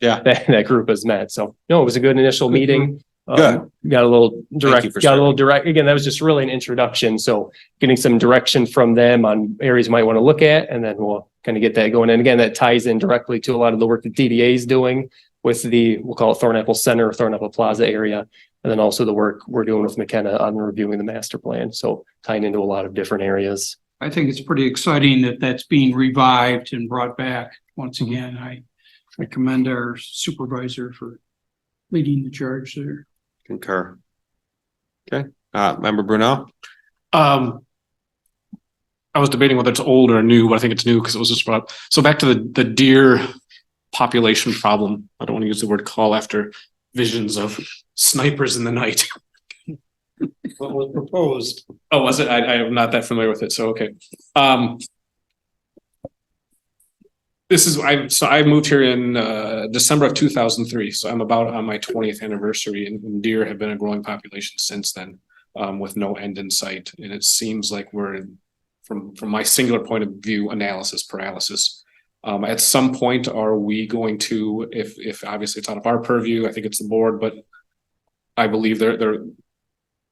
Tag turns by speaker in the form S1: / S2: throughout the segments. S1: Yeah. Mm-hmm.
S2: That, that group has met. So no, it was a good initial meeting. Um,
S1: Good.
S2: Got a little direct,
S1: you for
S2: got a little direct. Again, that was just really an introduction. So getting some direction from them on areas you might want to look at and then we'll kind of get that going. And again, that ties in directly to a lot of the work that DDA is doing with the, we'll call it Thornapple Center, or Thornapple Plaza area. And then also the work we're doing with McKenna on reviewing the master plan. So tying into a lot of different areas.
S3: I think it's pretty exciting that that's being revived and brought back. Once again, I, I commend our supervisor for leading the charge there.
S1: Concur. Okay, uh, member Brunel?
S4: Um. I was debating whether it's old or new, but I think it's new because it was just brought up. So back to the, the deer population problem. I don't want to use the word call after visions of snipers in the night. What was proposed? Oh, was it? I, I am not that familiar with it. So, okay. Um. This is, I, so I moved here in, uh, December of two thousand three. So I'm about on my twentieth anniversary and deer have been a growing population since then um, with no end in sight. And it seems like we're, from, from my singular point of view, analysis paralysis. Um, at some point, are we going to, if, if obviously it's out of our purview, I think it's the board, but I believe they're, they're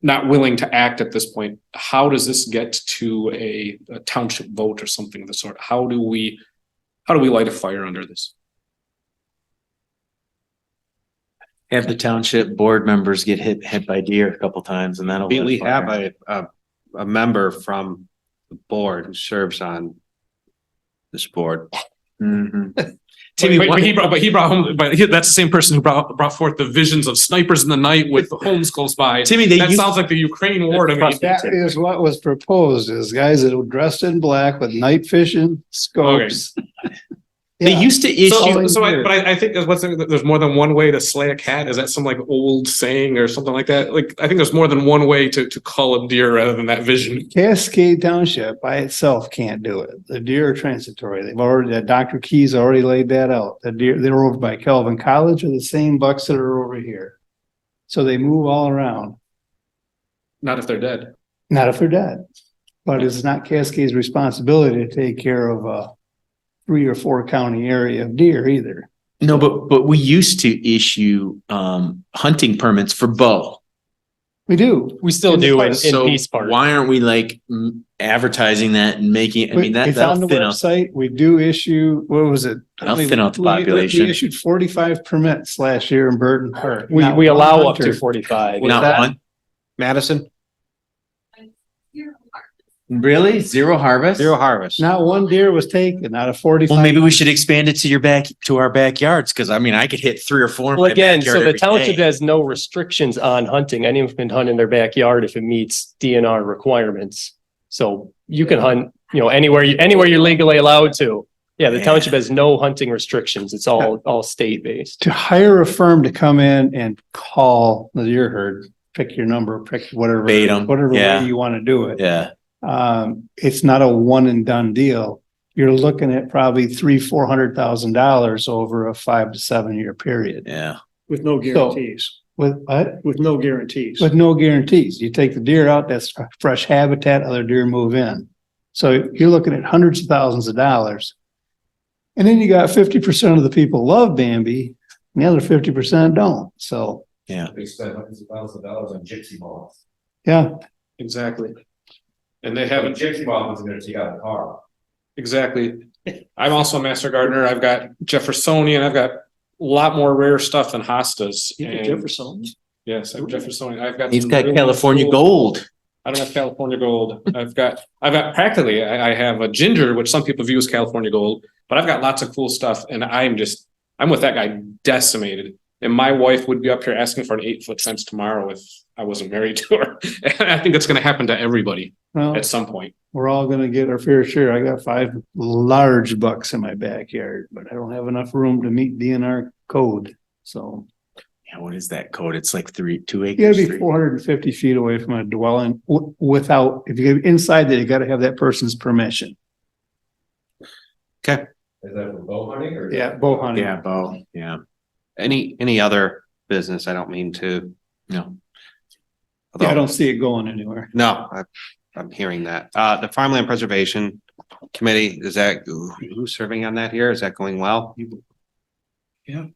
S4: not willing to act at this point. How does this get to a a township vote or something of the sort? How do we, how do we light a fire under this?
S5: Have the township board members get hit, hit by deer a couple times and that'll.
S1: We, we
S5: lit a fire.
S1: have a, a, a member from the board who serves on this board.
S5: Mhm.
S4: But- but, but he brought, but he brought home, but he, that's the same person who brought, brought forth the visions of snipers in the night with the homes close by.
S5: Timmy, they
S4: that
S5: used,
S4: sounds like the Ukraine war to me.
S6: That is what was proposed, is guys that were dressed in black with night fishing scopes.
S5: they
S6: Yeah.
S5: used to
S4: So,
S5: issue.
S4: so I, but I, I think there's what's, there's more than one way to slay a cat. Is that some like old saying or something like that? Like, I think there's more than one way to, to call a deer rather than that vision.
S6: Cascade Township by itself can't do it. The deer are transitory. They've already, that Dr. Keys already laid that out. The deer, they're over by Calvin College are the same bucks that are over here. So they move all around,
S4: Not if they're dead.
S6: not if they're dead. But it's not Cascade's responsibility to take care of a three or four county area of deer either.
S5: No, but, but we used to issue, um, hunting permits for bow.
S6: We do.
S2: We still
S6: In the
S2: do in,
S6: park.
S2: in
S5: So
S2: Peace Park.
S5: why aren't we like mm, advertising that and making, I mean, that,
S6: It's on
S5: that'll
S6: the
S5: thin out.
S6: website. We do issue, what was it?
S5: That'll thin out the
S6: We- we
S5: population.
S6: Issued forty-five permits last year in Burton Park.
S2: We,
S6: Not
S2: we
S6: one
S2: allow up
S6: hunter.
S2: to forty-five.
S1: What's
S5: Not
S1: that?
S5: one,
S1: Madison,
S5: really? Zero harvest?
S1: zero harvest.
S6: Not one deer was taken out of
S5: Well,
S6: forty-five.
S5: maybe we should expand it to your back, to our backyards, because I mean, I could hit three or four. in
S2: Well,
S5: my
S2: again, so
S5: backyard
S2: the
S5: every
S2: township
S5: day.
S2: has no restrictions on hunting. Anyone can hunt in their backyard if it meets DNR requirements. So you can hunt, you know, anywhere, you anywhere you're legally allowed to. Yeah, the
S5: Yeah.
S2: township has no hunting restrictions. It's all, all state-based.
S6: To hire a firm to come in and call the deer herd, pick your number, pick whatever.
S5: Bait 'em,
S6: Whatever way
S5: yeah.
S6: you want to do it.
S5: Yeah.
S6: Um, it's not a one and done deal. You're looking at probably three, four hundred thousand dollars over a five to seven year period
S5: Yeah.
S7: With no guarantees,
S6: with, what?
S7: with no guarantees.
S6: With no guarantees. You take the deer out, that's fresh habitat, other deer move in. So you're looking at hundreds of thousands of dollars. And then you got fifty percent of the people love Bambi, and the other fifty percent don't. So,
S8: They spend hundreds of thousands of dollars on gypsy balls.
S6: yeah,
S4: Exactly. And they
S8: Have a
S4: haven't,
S8: gypsy ball is gonna take out a car.
S4: exactly. I'm also a master gardener. I've got Jeffersonian. I've got a lot more rare stuff than hostas.
S7: You
S4: And-
S7: could Jefferson.
S4: Yes, I'm Jeffersonian. I've got.
S5: He's
S4: some
S5: got
S4: really
S5: California
S4: cool-
S5: gold.
S4: I don't have California gold. I've got, I've got practically, I, I have a ginger, which some people view as California gold, but I've got lots of cool stuff and I'm just, I'm with that guy decimated. And my wife would be up here asking for an eight foot fence tomorrow if I wasn't married to her. And I think that's gonna happen to everybody
S6: well,
S4: at some point.
S6: we're all gonna get our fair share. I got five large bucks in my backyard, but I don't have enough room to meet DNR code. So
S5: Yeah, what is that code? It's like three, two
S6: you
S5: acres.
S6: gotta be
S5: three-
S6: four hundred and fifty feet away from a dwelling w- without, if you get inside there, you gotta have that person's permission.
S8: Is that for bow hunting or?
S6: Yeah, bow hunting.
S5: Yeah, Bo, yeah,
S1: Any, any other business? I don't mean to.
S5: no.
S6: Yeah, I don't see it going anywhere.
S1: No, I, I'm hearing that. Uh, the Farmland Preservation Committee, is that, who's serving on that here? Is that going well?
S7: Yeah.